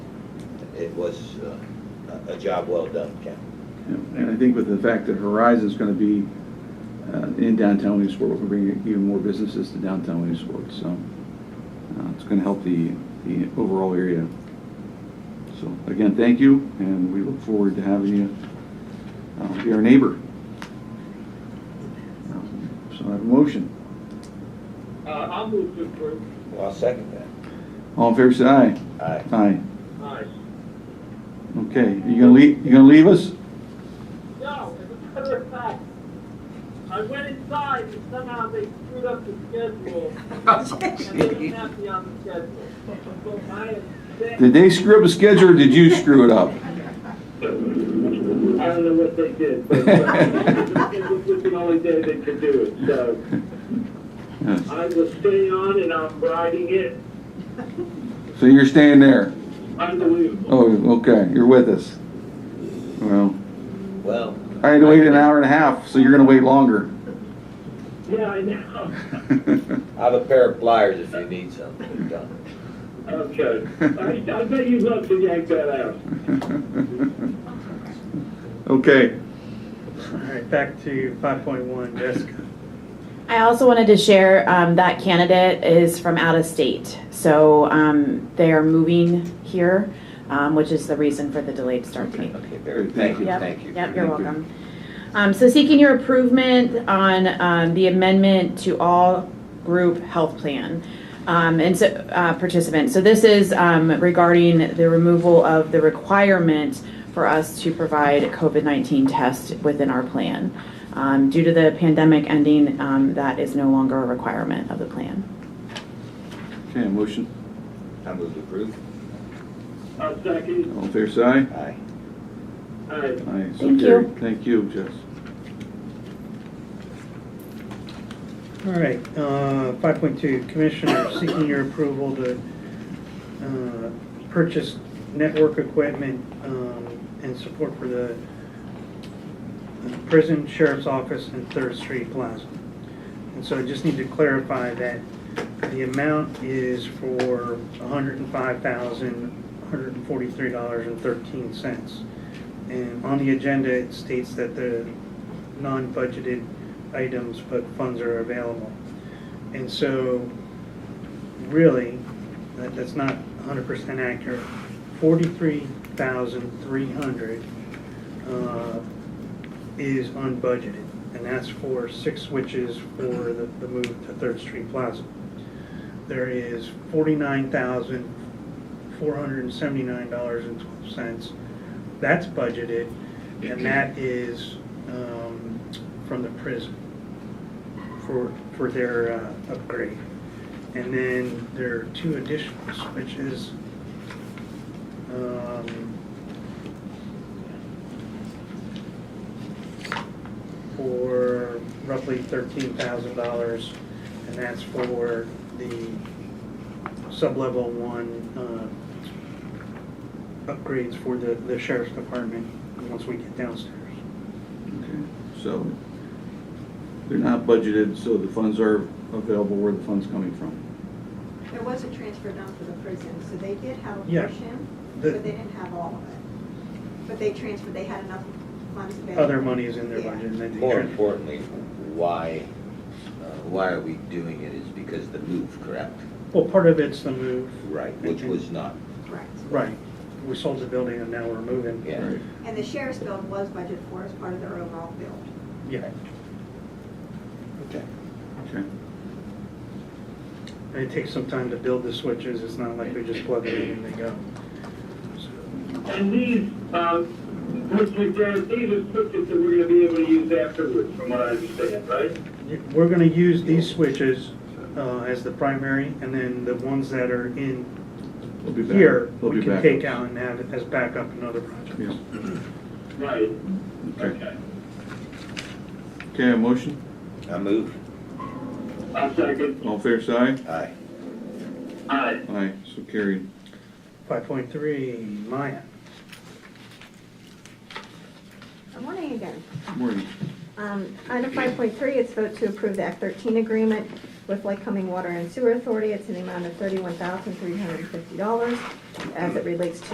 it was uh, a a job well done, Ken. And I think with the fact that Horizon's going to be uh, in downtown Williamsport, we're bringing even more businesses to downtown Williamsport, so uh, it's going to help the, the overall area. So again, thank you, and we look forward to having you uh, be our neighbor. So I have a motion. Uh, I'll move to approve. Well, I'll second that. All in favor, say aye. Aye. Aye. Aye. Okay, you gonna leave, you gonna leave us? No, as a matter of fact, I went inside and somehow they screwed up the schedule. And they didn't have me on the schedule. So I am sick. Did they screw up the schedule, or did you screw it up? I don't know what they did, but uh, this was the only day they could do it, so Yes. I will stay on and I'm riding it. So you're staying there? Unbelievable. Oh, okay, you're with us. Well, Well. I had to wait an hour and a half, so you're gonna wait longer. Yeah, I know. I have a pair of pliers if you need something done. Okay. I, I bet you'd love to yank that out. Okay, All right, back to 5.1, Jessica. I also wanted to share um, that candidate is from out of state. So um, they are moving here, um, which is the reason for the delayed start date. Okay, very, thank you, Yep, thank you. Yep, you're Thank you. welcome. Um, So seeking your approval on um, the amendment to all group health plan um, and so uh, participants. So this is um, regarding the removal of the requirement for us to provide COVID-19 tests within our plan. Um, Due to the pandemic ending, um, that is no longer a requirement of the plan. okay, motion, I move to approve. I'll second. all fair side? Aye. Aye. Aye, so Thank carried. Thank you, Jess. All right, uh, 5.2, Commissioner seeking your approval to uh, purchase network equipment um, and support for the prison, sheriff's office, and Third Street Plaza. And so I just need to clarify that the amount is for $105,143.13. And on the agenda, it states that the non-budgeted items, but funds are available. And so, really, that, that's not hundred percent accurate. Forty-three thousand three hundred, uh, is unbudgeted, and that's for six switches for the, the move to Third Street Plaza. There is forty-nine thousand four hundred and seventy-nine dollars and twelve cents. That's budgeted, and that is, um, from the prison for, for their uh, upgrade. And then there are two additional switches. um, For roughly thirteen thousand dollars, and that's for the sub-level one uh, upgrades for the, the sheriff's department, once we get downstairs. Okay, So, they're not budgeted, so the funds are available where the fund's coming from. There was a transfer done for the prison, so they did have a Yeah. portion, The- but they didn't have all of it. But they transferred, they had enough funds available. Other money is in their Yeah. budget, and then they More transfer. importantly, why, uh, why are we doing it is because the move, correct? Well, part of it's the move, Right, which was not, Correct. right, we sold the building and now we're moving. yeah. Right. And the sheriff's bill was budgeted for as part of their overall bill. Yeah, Okay. Okay, and it takes some time to build the switches, it's not like we just plug it in and they go. So, And these, uh, which we did, these are switches that we're gonna be able to use afterwards, from what I understand, right? We're gonna use these switches uh, as the primary, and then the ones that are in we'll be back. here, We'll we be can back. take out and have it as backup in other projects. Yeah, Right. okay. Okay, a motion, I move. I'll second. all fair side? Aye. Aye. Aye, so carried. Five point three, Maya. Good morning again. Morning. Um, Item 5.3, it's vote to approve the Act 13 agreement with Lake Coming Water and Sewer Authority. It's an amount of $31,350 as it relates to